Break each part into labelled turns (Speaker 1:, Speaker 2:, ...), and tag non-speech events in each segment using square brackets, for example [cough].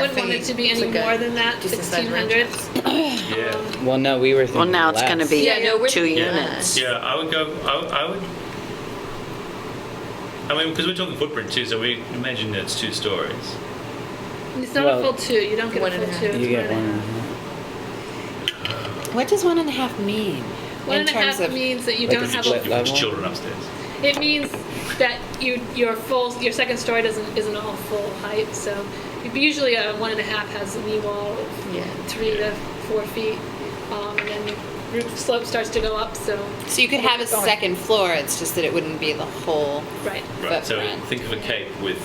Speaker 1: wouldn't want it to be any more than that,
Speaker 2: decent sized
Speaker 1: 1,600.
Speaker 3: Yeah,
Speaker 4: Well, no, we were thinking
Speaker 2: Well, now it's going to
Speaker 4: less.
Speaker 2: be
Speaker 1: Yeah, no, we're-
Speaker 2: two
Speaker 3: Yeah.
Speaker 2: units.
Speaker 3: yeah, I would go, I, would- I would, I mean, because we're talking footprint too, so we imagine that it's two stories.
Speaker 1: It's not a
Speaker 4: Well,
Speaker 1: full two, you don't get
Speaker 2: one
Speaker 1: a
Speaker 2: and a
Speaker 1: full
Speaker 2: half.
Speaker 1: two.
Speaker 4: You
Speaker 1: it's
Speaker 4: get
Speaker 1: one and a
Speaker 4: one.
Speaker 1: half.
Speaker 2: What does one and a half mean?
Speaker 1: One
Speaker 2: in
Speaker 1: and a
Speaker 2: terms
Speaker 1: half
Speaker 2: of-
Speaker 1: means that you
Speaker 4: Like
Speaker 1: don't
Speaker 4: a
Speaker 1: have
Speaker 4: split
Speaker 1: a,
Speaker 3: You put
Speaker 4: level?
Speaker 3: children upstairs.
Speaker 1: it means that you, your full, your second story doesn't, isn't all full height, so usually a one and a half has a knee wall of
Speaker 2: Yeah.
Speaker 1: three to four feet, um, and then the roof slope starts to go up, so,
Speaker 5: So you could have a second floor, it's just that it wouldn't be the whole,
Speaker 1: right.
Speaker 3: Right, so
Speaker 5: Footprint.
Speaker 3: think of a cape with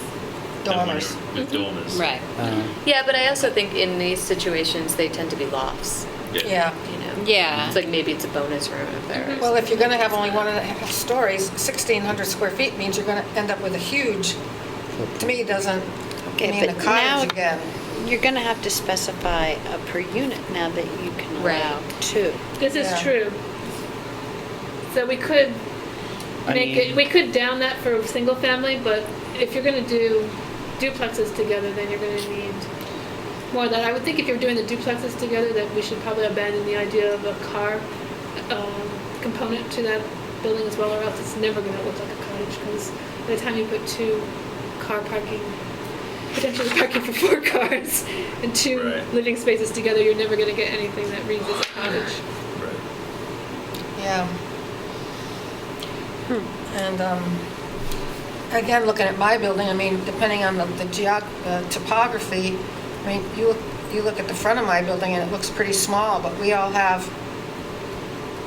Speaker 5: Dormers.
Speaker 3: With dormers.
Speaker 5: right.
Speaker 4: Uh,
Speaker 6: Yeah, but I also think in these situations, they tend to be lofts,
Speaker 3: Yeah.
Speaker 6: you know?
Speaker 5: Yeah.
Speaker 6: It's like maybe it's a bonus room if there
Speaker 7: Well,
Speaker 6: is.
Speaker 7: if you're going to have only one and a half stories, 1,600 square feet means you're going to end up with a huge, to me, doesn't
Speaker 2: Okay,
Speaker 7: mean a
Speaker 2: but now-
Speaker 7: cottage again.
Speaker 2: You're going to have to specify a per unit now that you can
Speaker 6: Right.
Speaker 2: allow two.
Speaker 1: This is
Speaker 7: Yeah.
Speaker 1: true. So we could
Speaker 4: I
Speaker 1: make
Speaker 4: mean-
Speaker 1: it, we could down that for single family, but if you're gonna do duplexes together, then you're gonna need more of that. I would think if you're doing the duplexes together, that we should probably abandon the idea of a car um, component to that building as well, or else it's never gonna look like a cottage, because by the time you put two car parking, potentially parking for four [laughs] cars, and two
Speaker 3: Right.
Speaker 1: living spaces together, you're never gonna get anything that reads as a cottage.
Speaker 3: Right.
Speaker 7: Yeah. And um, again, looking at my building, I mean, depending on the the geog, the topography, I mean, you, look- you look at the front of my building and it looks pretty small, but we all have,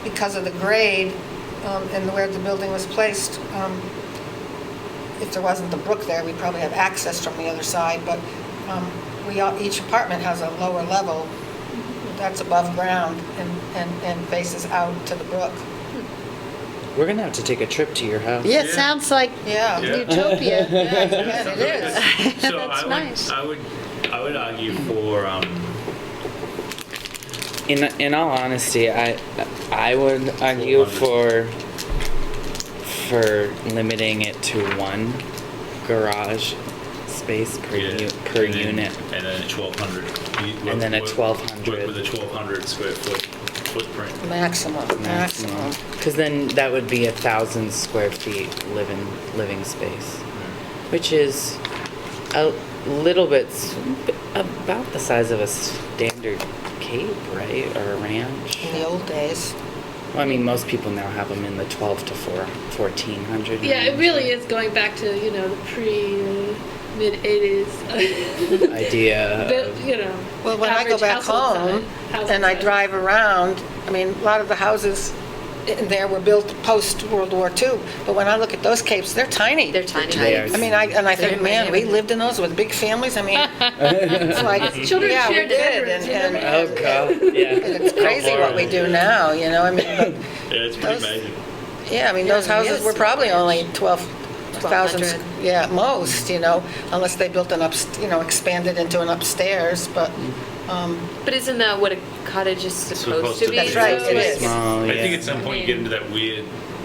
Speaker 7: because of the grade um, and where the building was placed, um, if there wasn't the brook there, we'd probably have access from the other side, but um, we all, each apartment has a lower level that's above ground and, and and faces out to the brook.
Speaker 4: We're going to have to take a trip to your house.
Speaker 2: Yeah, it
Speaker 3: Yeah.
Speaker 2: sounds like
Speaker 7: Yeah.
Speaker 3: Yeah.
Speaker 2: [laughs] utopia.
Speaker 4: [laughs]
Speaker 7: Yeah, it
Speaker 3: [laughs]
Speaker 7: is.
Speaker 3: So
Speaker 2: That's
Speaker 3: I would,
Speaker 2: nice.
Speaker 3: I would, I would argue for, um,
Speaker 4: In, in all honesty, I, I would argue for, for limiting it to one garage space per,
Speaker 3: yeah,
Speaker 4: u- per
Speaker 3: and then-
Speaker 4: unit.
Speaker 3: And then a twelve hundred.
Speaker 4: And then a 1200.
Speaker 3: Work with a twelve hundred square foot footprint.
Speaker 7: Maximum, maximum.
Speaker 4: Because then that would be a thousand square feet living, living space, which is a little bit, s- about the size of a standard cape, right, or a ranch?
Speaker 7: In the old days.
Speaker 4: Well, I mean, most people now have them in the twelve to four, fourteen hundred.
Speaker 1: Yeah, it really is going back to you know the pre mid
Speaker 3: [laughs]
Speaker 1: '80s. [laughs]
Speaker 4: Idea
Speaker 1: But,
Speaker 4: of,
Speaker 1: you know.
Speaker 7: Well, when I go
Speaker 1: average
Speaker 7: back
Speaker 1: household
Speaker 7: home
Speaker 1: size- household
Speaker 7: and I
Speaker 1: size.
Speaker 7: drive around, I mean, a lot of the houses in there were built post-World War II, but when I look at those capes, they're tiny.
Speaker 6: They're tiny.
Speaker 4: They are
Speaker 7: I mean, I, and I think,
Speaker 6: They're
Speaker 7: man, we
Speaker 6: amazing.
Speaker 7: lived in those with big families, I mean,
Speaker 1: [laughs]
Speaker 7: it's like,
Speaker 1: Children
Speaker 7: yeah, we
Speaker 1: shared
Speaker 7: did.
Speaker 1: bedrooms,
Speaker 7: and-
Speaker 1: you
Speaker 7: and-
Speaker 1: remember?
Speaker 4: oh god, yeah.
Speaker 7: It's crazy what we do now, you know, I mean, but
Speaker 3: Yeah, it's pretty
Speaker 7: Those-
Speaker 3: amazing.
Speaker 7: Yeah, I mean, those
Speaker 6: Yeah,
Speaker 7: houses were probably
Speaker 6: yes.
Speaker 7: only 12,000,
Speaker 6: 1,200.
Speaker 7: yeah, at most, you know, unless they built an up, you know, expanded into an upstairs, but,
Speaker 6: But isn't that what a cottage is supposed to be?
Speaker 7: That's right,
Speaker 6: So
Speaker 7: it
Speaker 6: it's-
Speaker 7: is.
Speaker 4: Small,
Speaker 3: I think
Speaker 4: Oh, yeah.
Speaker 3: at some point you get into that weird,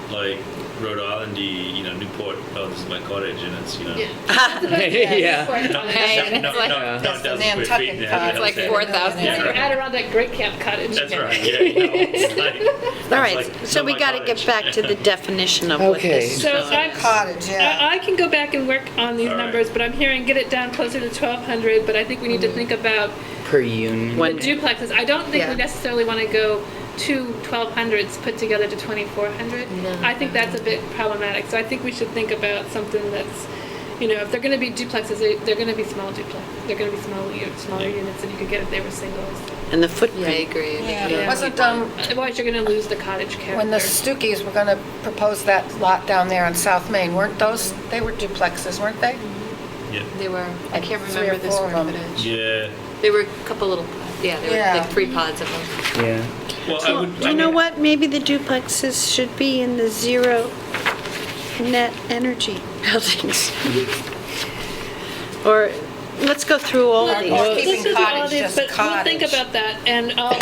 Speaker 3: like Rhode Islandy, you know, Newport. Oh, this is my cottage, and it's [laughs] you
Speaker 1: [laughs] [laughs]
Speaker 3: know.
Speaker 1: Yeah.
Speaker 4: [laughs] Yeah.
Speaker 1: Or-
Speaker 2: [laughs]
Speaker 3: Not,
Speaker 1: It's
Speaker 3: not, not, not,
Speaker 7: That's the
Speaker 3: dozen square feet.
Speaker 7: Nantucket
Speaker 3: and it
Speaker 7: cottage.
Speaker 3: has
Speaker 7: It's
Speaker 3: a
Speaker 5: Like
Speaker 3: house in it.
Speaker 5: 4,000.
Speaker 3: Yeah,
Speaker 1: an
Speaker 3: right.
Speaker 1: Adirondack Great Camp Cottage.
Speaker 3: That's right. Yeah. You know, it's like,
Speaker 2: All
Speaker 3: it's
Speaker 2: right,
Speaker 3: like,
Speaker 2: so
Speaker 3: not
Speaker 2: we
Speaker 3: my
Speaker 2: got to get
Speaker 3: cottage.
Speaker 2: back to the definition of what
Speaker 4: Okay.
Speaker 2: this
Speaker 1: So I'm,
Speaker 7: Cottage, yeah.
Speaker 6: Uh,
Speaker 1: I, I can go back and work on these
Speaker 3: All right.
Speaker 1: numbers, but I'm hearing get it down closer to 1,200. But I think we need to
Speaker 3: Mm-hmm.
Speaker 1: think about
Speaker 4: Per unit.
Speaker 1: the duplexes. I don't think
Speaker 6: Yeah.
Speaker 1: we necessarily want to go two 1200s put together to 2400. I think that's a bit problematic. So I think we should think about something that's, you know, if they're going to be duplexes, they- they're going to be small duplexes. They're going to be small, u- smaller units than you could get if they were singles.
Speaker 2: and the
Speaker 6: Yeah, I
Speaker 2: footprint.
Speaker 6: agree.
Speaker 7: yeah, wasn't, um,
Speaker 1: Otherwise, you're going to lose the cottage character.
Speaker 7: when the Stukeys were gonna propose that lot down there on South Main, weren't those, they were duplexes, weren't they?
Speaker 3: [laughs] Yeah.
Speaker 6: They were, I can't
Speaker 7: Three or
Speaker 6: remember the
Speaker 7: four
Speaker 6: square
Speaker 7: of them.
Speaker 6: footage.
Speaker 3: Yeah.
Speaker 6: They were a couple little, yeah, there were
Speaker 7: Yeah.
Speaker 6: like three pods of them.
Speaker 4: Yeah.
Speaker 3: Well, I would. I
Speaker 2: You know
Speaker 3: would-
Speaker 2: what, maybe the duplexes should be in the zero net energy [laughs] buildings. Or, let's go through all of
Speaker 7: Or
Speaker 2: these.
Speaker 1: Let's
Speaker 7: keeping
Speaker 1: do all
Speaker 7: cottage
Speaker 1: these,
Speaker 7: just
Speaker 1: but We'll think
Speaker 7: cottage.
Speaker 1: about that, and uh,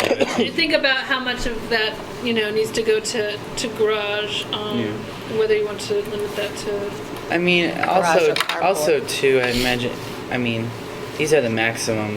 Speaker 1: you think about how much of that, you know, needs to go to, to garage, um, whether you want to limit that to
Speaker 4: I mean,
Speaker 7: Garage
Speaker 4: also,
Speaker 7: or carport.
Speaker 4: also too, I imagine, I mean, these are the maximums